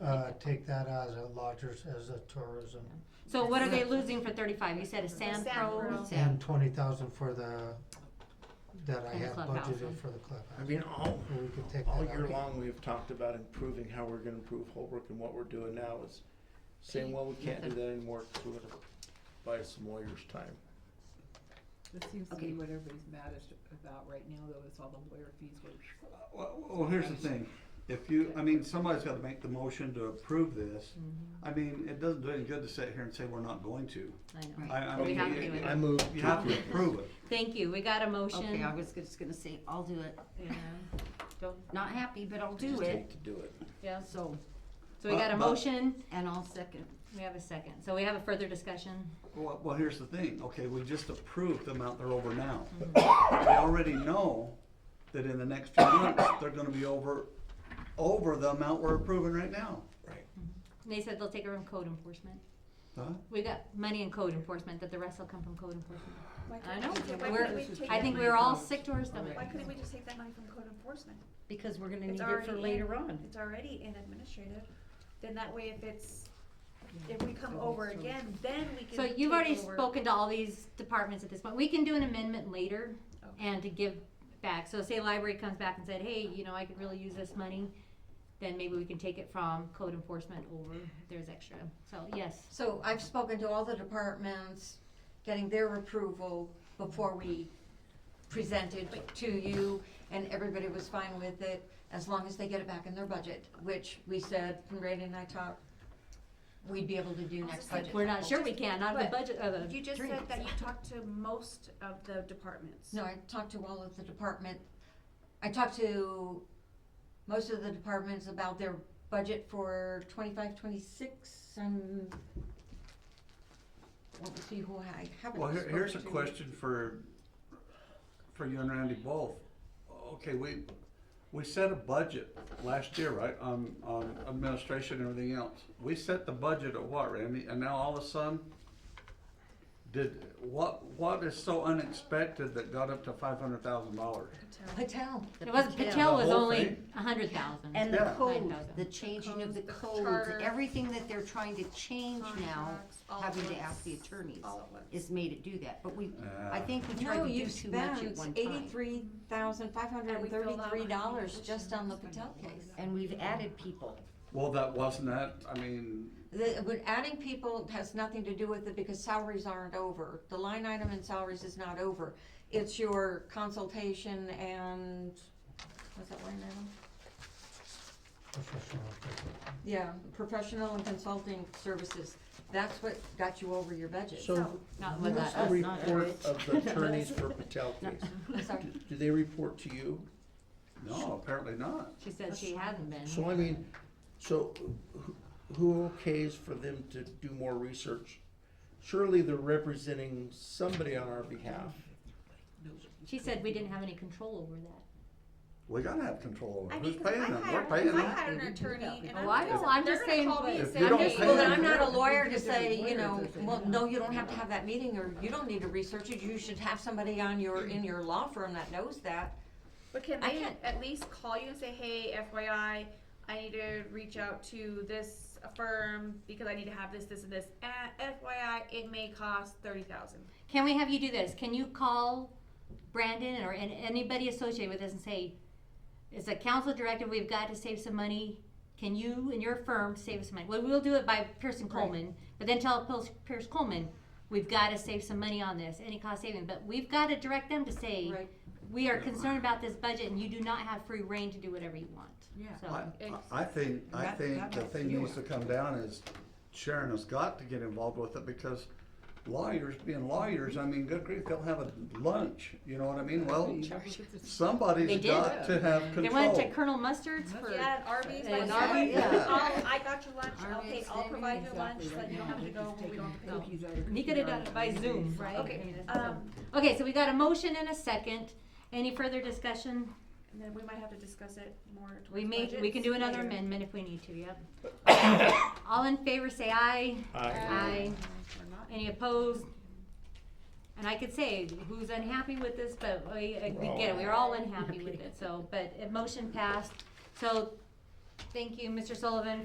uh, take that as a lodgers, as a tourism. So what are they losing for thirty-five? You said a sand sand pro? pro. sand- And twenty thousand for the, that I And the have clubhouse, budgeted huh? for the clubhouse. I mean, all, And we could take that all out. year long, we've talked about improving how we're gonna improve Holbrook and what we're doing now is saying, well, we can't do that anymore, 'cause we're gonna buy us some lawyers' time. That seems to Okay. be what everybody's maddest about right now, though, is all the lawyer fees go. Well, well, here's the thing, if you, I mean, somebody's gotta make the motion to approve this. Mm-hmm. I mean, it doesn't do any good to sit here and say we're not going to. I know. I, I But we mean, have to do it- it. I move you have to to, approve it. Thank you. We got a Okay, I motion. was just gonna say, I'll do it, you know, don't, not happy, but I'll do just it, hate to do it. Yes. so, So we got a Uh, But- but- motion. and I'll second. We have a second. So we have a further discussion. Well, well, here's the thing, okay, we just approved the amount they're over now. Mm-hmm. We already know that in the next few months, they're gonna be over, over the amount we're approving right now. Right. And they said they'll take it from code enforcement. Huh? We got money in code enforcement, that the rest will come from code enforcement. I know. Why We're- couldn't we take I that think money we were all from- sick to our stomach. Why couldn't we just take that money from code enforcement? Because we're gonna need It's it already for in. later on. It's already in administrative, then that way if it's, if we come over again, then we can So take you've already over. spoken to all these departments at this point. We can do an amendment later and to give back. So say library comes back and said, hey, you know, I could really use this money, then maybe we can take it from code enforcement over if there's extra. So, yes. So I've spoken to all the departments, getting their approval before we presented to you, and everybody was fine with it, as long as they get it back in their budget, which we said, when Randy and I talked, we'd be able to do next budget. We're not sure we can, not of the But budget, of the. You just dream. said that you talked to most of the departments. No, I talked to all of the department, I talked to most of the departments about their budget for twenty-five, twenty-six, and let me see who I haven't Well, here, here's a spoken to. question for, for you and Randy both. Okay, we, we set a budget last year, right, on, on administration and everything else. We set the budget at what, Randy, and now all of a sudden, did, what, what is so unexpected that got up to five hundred thousand dollars? Patel. It was, Patel The was whole only thing? a hundred thousand. And the Yeah. code, 9,000. the changing of the Codes, the codes, charter, everything that they're trying to change now, Contracts, all having at to once. ask the attorneys, All at once. is made it do that, but we, Uh, I Yeah. think we tried No, to do you too much at spent one time. eighty-three thousand five hundred and thirty-three dollars And we filled out just on the Patel applications. case. And we've added people. Well, that wasn't that, I mean, The, but adding people has nothing to do with it because salaries aren't over. The line item in salaries is not over. It's your consultation and, what's that line item? Professional people. Yeah, professional and consulting services. That's what got you over your budget. So, Not with what's us, the not report us. of the attorneys for Patel case? Sorry. Do they report to you? no, apparently not. she said she hasn't been. So I mean, so who- who okays for them to do more research? Surely they're representing somebody on our behalf. She said we didn't have any control over that. We gotta have control over I it. who's mean, 'cause paying if I them, we're hired, paying if I them. hired an attorney and Oh, I I'm, know, I'm they're just gonna saying, call me but- and If say, you I'm don't just. pay Well, gonna- then them, I'm not a lawyer to Different say, you lawyers know, that they well, have. no, you don't have to have that meeting, or you don't need to research it, you should have somebody on your, in your law firm that knows that. But can I they can't- at least call you and say, hey, FYI, I need to reach out to this firm because I need to have this, this, and this. And FYI, it may cost thirty thousand. Can we have you do this? Can you call Brandon or an- anybody associated with this and say, it's a council directive, we've got to save some money. Can you and your firm save us some money? Well, we'll do it by Pearson Coleman, but then tell Pils- Pierce Coleman, we've got to save some money on this, any cost saving. But we've got to direct them to say, Right. we are concerned about this budget and you do not have free reign to do whatever you want. Yeah. So- I, I I think, I That- think that the has to thing do needs to it. come down is Sharon has got to get involved with it because lawyers being lawyers, I mean, good grief, they'll have a lunch, you know what I mean? Well, They somebody's did. got to have They went to control. Colonel Mustard's for. Yeah, at Arby's, like, And yeah, Arby's, yeah. I'll, I got your lunch, I'll pay, Arby's, I'll they provide mean your lunch, Exactly, so right you don't now, have they're to go, just we taking don't. No. cookies out of the He could have done computer. it by Zoom, right? Okay, I mean, it's- Um, Okay, so we got a motion and a second. Any further discussion? and then we might have to discuss it more towards We may, we can budgets do another later. amendment if we need to, yep. All in favor, say aye. Aye. Or not. Any opposed? And I could say who's unhappy with this, but we, uh, we get it, we're all unhappy with it, so, but uh, motion passed. So, thank you, Mr. Sullivan,